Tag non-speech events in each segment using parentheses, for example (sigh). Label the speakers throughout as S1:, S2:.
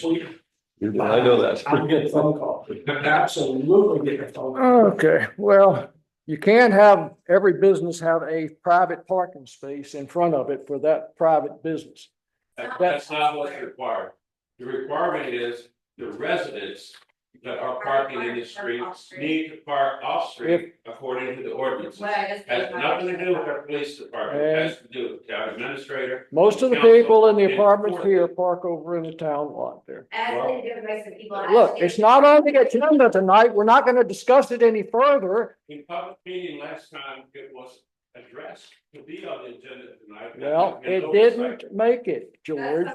S1: week.
S2: I know that.
S1: I'll get a phone call. Absolutely get a phone. call.
S3: Okay, well, you can have, every business have a private parking space in front of it for that private business.
S4: That-
S3: That's-
S4: That's not what's required. The requirement is the residents that are parking in the streets need to park off street according to the ordinance.
S5: What I just.
S4: Has nothing to do with our police department, It has to do with the county administrator.
S3: Most of the people in the apartments here park over in the town lot there.
S5: As they do with some people.
S3: Look, it's not on the agenda tonight. We're not gonna discuss it any further.
S4: In public meeting last time, it was addressed to be on the agenda tonight.
S3: Well,
S4: And
S3: it
S4: oversight.
S3: didn't make it, George.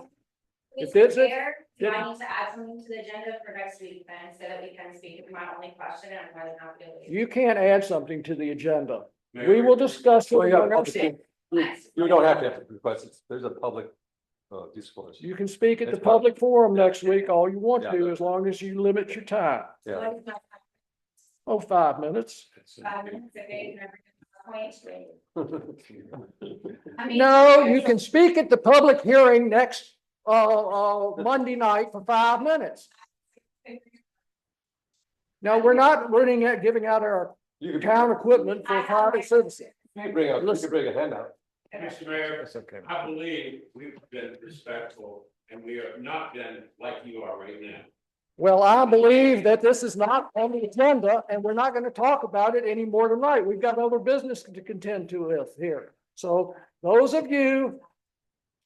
S3: It
S5: Mr.
S3: isn't-
S5: Mayor, do I
S3: didn't-
S5: need to add something to the agenda for next week then, so that we can speak of my only question and whether or not we.
S3: You can't add something to the agenda.
S4: Mayor,
S3: We will discuss it.
S2: Well, yeah,
S3: among ourselves.
S2: public- (laughs) You don't have to have request it. There's a public uh discourse.
S3: You can speak at the
S2: It's public.
S3: public forum next week all you want
S2: Yeah.
S3: to, as long as you limit your time.
S2: (laughs) Yeah.
S3: Oh, five minutes.
S5: Five minutes, okay, and everything to the point. I mean-
S3: No, you
S5: (laughs)
S3: can speak at the public hearing next, uh, uh, Monday night for five minutes. No, we're not running, out- giving out our
S2: You can
S3: town equipment for private citizens.
S2: you can bring a, you can
S3: Listen.
S2: bring a handout.
S4: Mr. Mayor,
S2: That's okay.
S4: I believe we've been respectful and we have not been like you are right now.
S3: Well, I believe that this is not on the agenda and we're not gonna talk about it anymore tonight. We've got other business to contend to with here. So those of you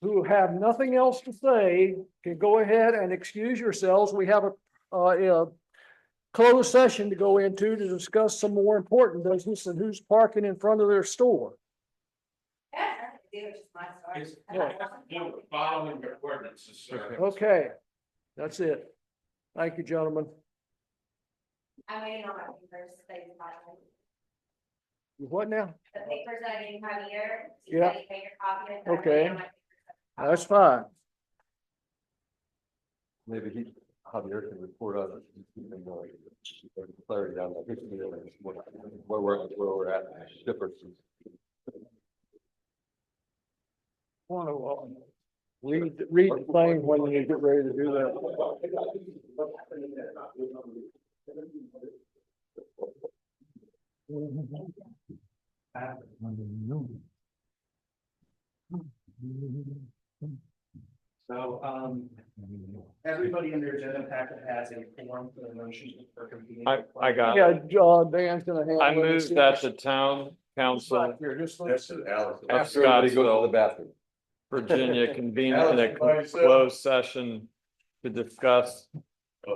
S3: who have nothing else to say can go ahead and excuse yourselves. We have a, uh, a closed session to go into to discuss some more important business and who's parking in front of their store.
S5: Yeah, it was just my story.
S4: It's- We're following the uh, ordinances, sir.
S3: Okay, that's it. Thank you, gentlemen.
S5: I'm waiting on my papers, they, the
S3: You What now?
S5: papers that I didn't have here. so
S3: Yeah.
S5: you Take your copy. and I'm
S3: Okay.
S5: waiting on my papers.
S3: That's fine.
S2: Maybe he, Javier can report on it. He can, uh, Clarity on that. Where we're, where we're at, differences.
S3: Want to, uh, read, read the thing when you get ready to do that.
S1: So, um, everybody in their agenda packet has a form for the motion for convening.
S6: I, I got it.
S3: Yeah, John, Dan's gonna handle.
S6: I
S3: it.
S6: move that the town council,
S3: Here, just let us-
S6: Of
S2: After everybody goes to
S6: Scottsville.
S2: the bathroom.
S6: Virginia, convene in a closed session to discuss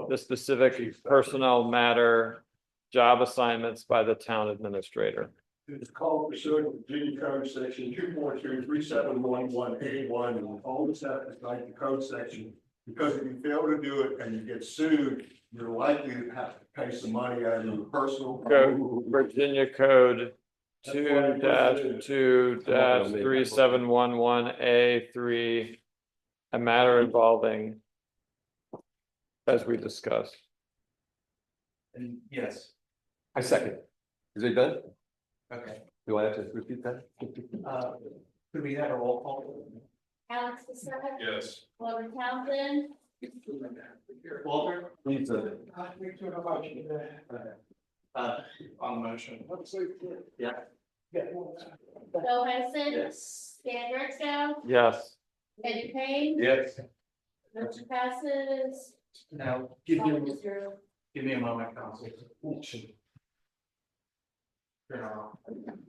S6: the specific personnel matter, job assignments by the town administrator.
S7: It's called pursuant to Virginia Code Section two point two three seven one one A one, and all this stuff is like the code section. Because if you fail to do it and you get sued, you're likely to have to pay some money out of your personal.
S6: Go Virginia Code two dash two dash three seven one one A three. A matter involving as we discussed.
S1: And yes,
S2: I second. Is it done?
S1: okay,
S2: Do I have to repeat that?
S1: uh, could we have a roll call?
S5: Alex, Lisa,
S4: Yes.
S5: Logan Townsend,
S1: Walter?
S2: Please, uh,
S1: Uh, on the motion. Yeah.
S5: Bill Henson,
S1: Yes.
S5: Dan Ritzko,
S6: Yes.
S5: Eddie Payne,
S2: Yes.
S5: motion passes.
S1: Now, give me,
S5: five to zero.
S1: give me a moment, council. Turn on.